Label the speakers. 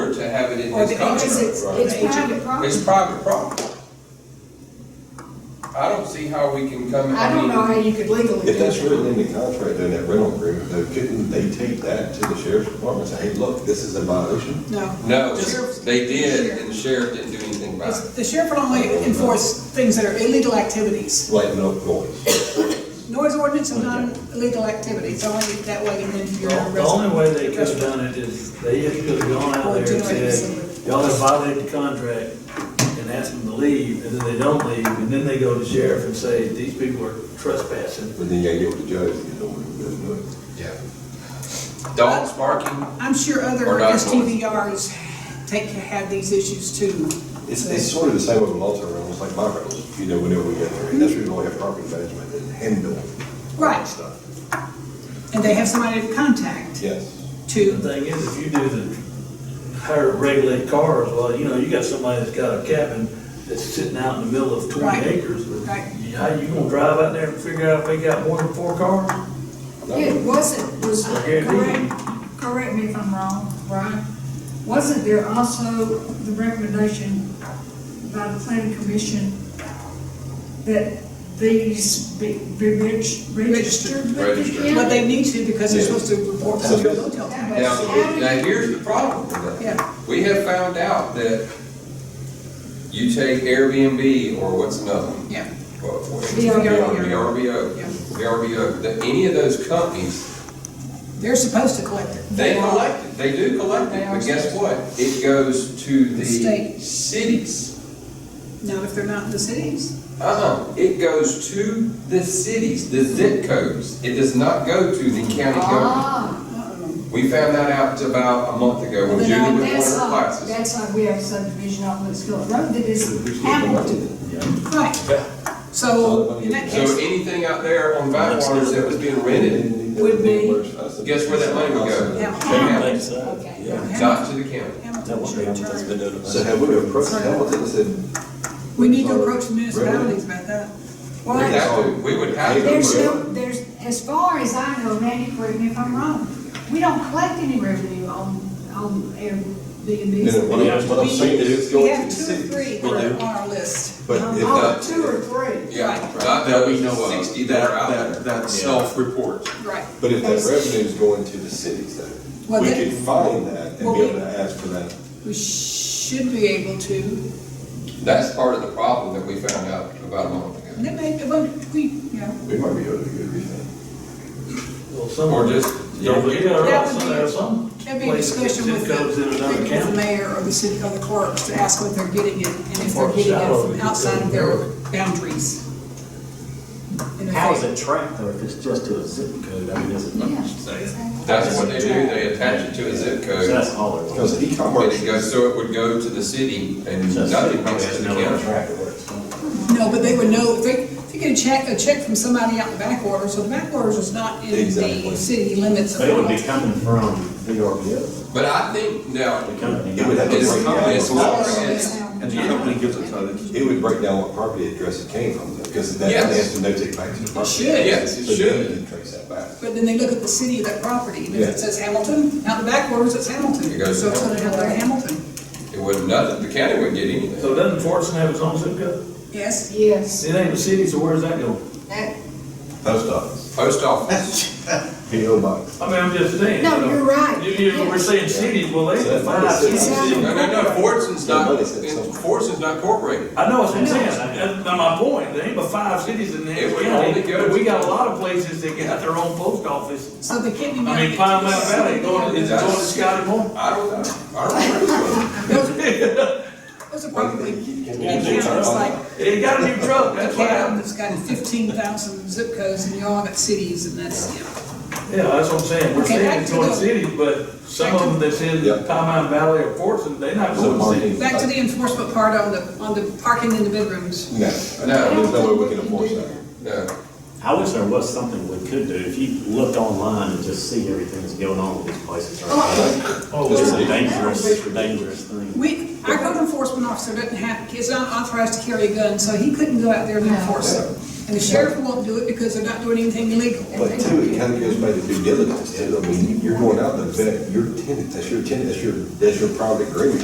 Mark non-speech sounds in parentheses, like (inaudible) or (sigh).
Speaker 1: it-
Speaker 2: Or
Speaker 1: it's
Speaker 2: the agent,
Speaker 1: contract,
Speaker 2: it's,
Speaker 1: right?
Speaker 2: it's private
Speaker 1: It's private
Speaker 2: property.
Speaker 1: property. I don't see how we can come in.
Speaker 2: I don't know how you could legally
Speaker 3: If
Speaker 2: do
Speaker 3: that's
Speaker 2: it.
Speaker 3: written in the contract, in that rental agreement, though, couldn't they take that to the sheriff's department and say, hey, look, this is a violation?
Speaker 2: No.
Speaker 1: No,
Speaker 2: The sheriff's-
Speaker 1: they did,
Speaker 2: the
Speaker 1: and the
Speaker 2: sheriff-
Speaker 1: sheriff didn't do anything about
Speaker 2: it's-
Speaker 1: it.
Speaker 2: The sheriff will only enforce things that are illegal activities.
Speaker 3: Like no noise.
Speaker 2: Noise ordinance is not an illegal activity, it's only that way and then if you're
Speaker 4: The only
Speaker 2: arrested.
Speaker 4: way they could have done it is, they just could have gone out there and said, y'all have violated the contract and asked them to leave, and then they don't leave, and then they go to sheriff and say, these people are trespassing.
Speaker 3: But then you gotta get with the judge, you know, when it doesn't do it.
Speaker 1: Yeah. Dogs barking,
Speaker 2: I'm sure other
Speaker 1: Or not noise.
Speaker 2: STVRs take, have these issues too.
Speaker 3: It's, it's sort of the same with multi-rentals, like my rentals, you know, whenever we get there, and that's where we have property management and handle.
Speaker 2: Right.
Speaker 3: Stuff,
Speaker 2: And they have somebody to contact
Speaker 3: yes.
Speaker 4: The
Speaker 2: to,
Speaker 4: thing is, if you do the, how to regulate cars, well, you know, you got somebody that's got a cabin that's sitting out in the middle of twenty
Speaker 2: Right.
Speaker 4: acres,
Speaker 2: Right.
Speaker 4: how you gonna drive out there and figure out if they got more than four cars?
Speaker 5: It wasn't, was,
Speaker 4: I guarantee you.
Speaker 5: correct, correct me if I'm wrong, Brian, wasn't there also the recommendation by the planning commission that these be, be reg- registered? with the
Speaker 1: Registered.
Speaker 5: county?
Speaker 2: but they need to because they're
Speaker 3: Yeah.
Speaker 2: supposed to report
Speaker 3: So-
Speaker 2: to the hotel tax.
Speaker 1: Now,
Speaker 5: How do
Speaker 1: now
Speaker 5: you-
Speaker 1: here's the problem with that.
Speaker 2: Yeah.
Speaker 1: We have found out that you take Airbnb or what's another one?
Speaker 2: Yeah.
Speaker 1: Well, what-
Speaker 2: VRBO.
Speaker 1: VRBO,
Speaker 2: Yeah.
Speaker 1: VRBO, that any of those companies,
Speaker 2: They're supposed to collect it.
Speaker 1: they collect it, they do collect it, but guess what? It goes to
Speaker 2: The
Speaker 1: the
Speaker 2: state.
Speaker 1: cities.
Speaker 2: Not if they're not in the cities.
Speaker 1: Uh-uh, it goes to the cities, the zip codes. It does not go to the county government.
Speaker 5: Ah,
Speaker 1: We found that out about a month ago
Speaker 5: well,
Speaker 1: when Judy
Speaker 5: then
Speaker 1: was one
Speaker 5: I- uh,
Speaker 1: of
Speaker 5: that's
Speaker 1: her
Speaker 5: like,
Speaker 1: classes.
Speaker 5: that's like we have a subdivision off Litchfield Road that is Hamilton.
Speaker 2: Right. So in that
Speaker 1: So
Speaker 2: case,
Speaker 1: anything out there on Backwaters that was being rented,
Speaker 2: Would be-
Speaker 1: guess where that money would go?
Speaker 2: Yeah.
Speaker 1: To Hamilton,
Speaker 5: Okay.
Speaker 1: Not to the county.
Speaker 2: Hamilton should
Speaker 6: Hamilton's been
Speaker 2: turn.
Speaker 6: doing it.
Speaker 3: So have we approached Hamilton and said?
Speaker 2: We need to approach the municipalities about that.
Speaker 5: Well,
Speaker 1: We'd have to- we would have to.
Speaker 5: There's no, there's, as far as I know, Randy, correct me if I'm wrong, we don't collect any revenue on, on
Speaker 3: Then
Speaker 5: Airbnb.
Speaker 3: what I'm, what I'm saying is it's
Speaker 2: We
Speaker 3: going to
Speaker 2: have
Speaker 3: the
Speaker 2: two or
Speaker 3: city.
Speaker 2: three Um,
Speaker 6: We
Speaker 2: on
Speaker 6: do.
Speaker 2: our list.
Speaker 3: But if
Speaker 5: Oh,
Speaker 3: not,
Speaker 5: two or three.
Speaker 1: Yeah,
Speaker 2: Right.
Speaker 1: not
Speaker 6: That we know of.
Speaker 1: sixty that are out
Speaker 6: That-
Speaker 1: there.
Speaker 6: That self-report.
Speaker 2: Right.
Speaker 3: but if that revenue is going to the cities though,
Speaker 2: Well,
Speaker 3: we
Speaker 2: that-
Speaker 3: could find that and
Speaker 2: Well,
Speaker 3: be
Speaker 2: we-
Speaker 3: able to ask for that.
Speaker 2: We should be able to,
Speaker 1: That's part of the problem that we found out about a month
Speaker 2: and
Speaker 1: ago.
Speaker 2: it may, well, we, you know,
Speaker 3: We might be able to do everything.
Speaker 4: Well, some
Speaker 1: Or
Speaker 4: are
Speaker 1: just,
Speaker 4: Yeah,
Speaker 1: don't
Speaker 4: but
Speaker 1: get,
Speaker 4: yeah, there are
Speaker 2: That would
Speaker 4: some,
Speaker 2: be-
Speaker 4: there are some
Speaker 2: that'd be a
Speaker 4: places that
Speaker 2: discussion with
Speaker 4: zip codes in another
Speaker 2: the, with the
Speaker 4: county.
Speaker 2: mayor or the city, or the clerks to ask what they're getting it, and if they're
Speaker 4: Or
Speaker 2: getting it
Speaker 4: shallow,
Speaker 2: from
Speaker 4: you
Speaker 2: outside of their
Speaker 4: go.
Speaker 2: boundaries. And if
Speaker 7: How is
Speaker 2: they-
Speaker 7: it tracked though, if it's just to a zip code, I mean, is it?
Speaker 5: Yeah.
Speaker 1: that's what they do, they attach it to a zip
Speaker 7: So
Speaker 1: code.
Speaker 7: that's all it was.
Speaker 3: Because
Speaker 1: And
Speaker 3: e-commerce
Speaker 1: it goes, so it would go to the city and
Speaker 7: So
Speaker 1: nothing
Speaker 7: probably
Speaker 1: comes
Speaker 7: has
Speaker 1: to the
Speaker 7: no other
Speaker 1: county.
Speaker 7: track of where it's going.
Speaker 2: No, but they would know, if they, if you get a check, a check from somebody out in the backwaters, so the backwaters is not in the
Speaker 3: Exactly.
Speaker 2: city limits of.
Speaker 7: But it would be
Speaker 2: Hamilton.
Speaker 7: coming from VRBO,
Speaker 1: But I think now,
Speaker 7: the company.
Speaker 3: It would have to
Speaker 1: It's
Speaker 3: break down.
Speaker 1: it's
Speaker 3: what
Speaker 1: not-
Speaker 3: property-
Speaker 1: it's-
Speaker 6: And the company gives it to them.
Speaker 3: It would break down what property address it came from, because that,
Speaker 1: Yes.
Speaker 3: that has to notate back to the property.
Speaker 2: should.
Speaker 1: Yes, it
Speaker 3: So
Speaker 1: should.
Speaker 3: you can trace that back.
Speaker 2: But then they look at the city of that property, and if
Speaker 3: Yeah.
Speaker 2: it says Hamilton, out in the backwaters, it's Hamilton.
Speaker 1: It goes
Speaker 2: So
Speaker 1: to
Speaker 2: it's gonna have their Hamilton,
Speaker 1: it would, nothing, the county wouldn't get
Speaker 4: So
Speaker 1: anything.
Speaker 4: doesn't Fortson have its own zip code?
Speaker 2: yes?
Speaker 5: Yes,
Speaker 4: It ain't a city, so where's that going?
Speaker 5: that,
Speaker 3: Post office,
Speaker 1: Post office,
Speaker 3: P O box.
Speaker 4: I mean, I'm just saying.
Speaker 5: No,
Speaker 4: you know,
Speaker 5: you're right.
Speaker 4: You, you, we're saying cities, well, they
Speaker 3: So that's
Speaker 4: have
Speaker 3: not a
Speaker 4: five
Speaker 3: city.
Speaker 4: cities.
Speaker 5: Exactly.
Speaker 1: no, no, no, Fortson's not,
Speaker 3: Somebody said something.
Speaker 1: Fortson's not incorporated.
Speaker 4: I know what I'm saying, that's not my point, there ain't but five cities in the
Speaker 1: It would only
Speaker 4: county,
Speaker 1: go
Speaker 4: but
Speaker 1: to-
Speaker 4: we got a lot of places that got their own post office.
Speaker 2: So they can't be.
Speaker 4: I mean, Pine Mountain Valley, going, it's going to Scotty Moore.
Speaker 1: I don't know, I don't know.
Speaker 2: Those are probably,
Speaker 3: they turn
Speaker 2: it's
Speaker 3: on?
Speaker 2: like,
Speaker 4: It got a new truck, that's what happened.
Speaker 2: Camden's got fifteen thousand zip codes, and you all got cities, and that's, you know.
Speaker 4: Yeah, that's what I'm saying, we're
Speaker 2: Okay,
Speaker 4: saying
Speaker 2: back
Speaker 4: it's
Speaker 2: to
Speaker 4: going to
Speaker 2: the-
Speaker 4: cities, but some of them that said
Speaker 3: Yeah.
Speaker 4: Pine Mountain Valley or Fortson, they not going to cities.
Speaker 2: Back to the enforcement part on the, on the parking in the bedrooms.
Speaker 3: No, there's no way we can enforce that. (laughs)
Speaker 1: No.
Speaker 7: I wish there was something we could do, if you looked online and just see everything that's going on with these places. right
Speaker 3: Oh,
Speaker 7: now. It's a dangerous, dangerous thing.
Speaker 2: We, our code enforcement officer doesn't have, is not authorized to carry a gun, so he couldn't go out there and
Speaker 5: No.
Speaker 2: enforce it. And the sheriff won't do it because they're not doing anything illegal.
Speaker 3: But two, it kind of goes back to due diligence too. I mean, you're going out, the vet, your tenant, that's your tenant, that's your, that's your private agreement.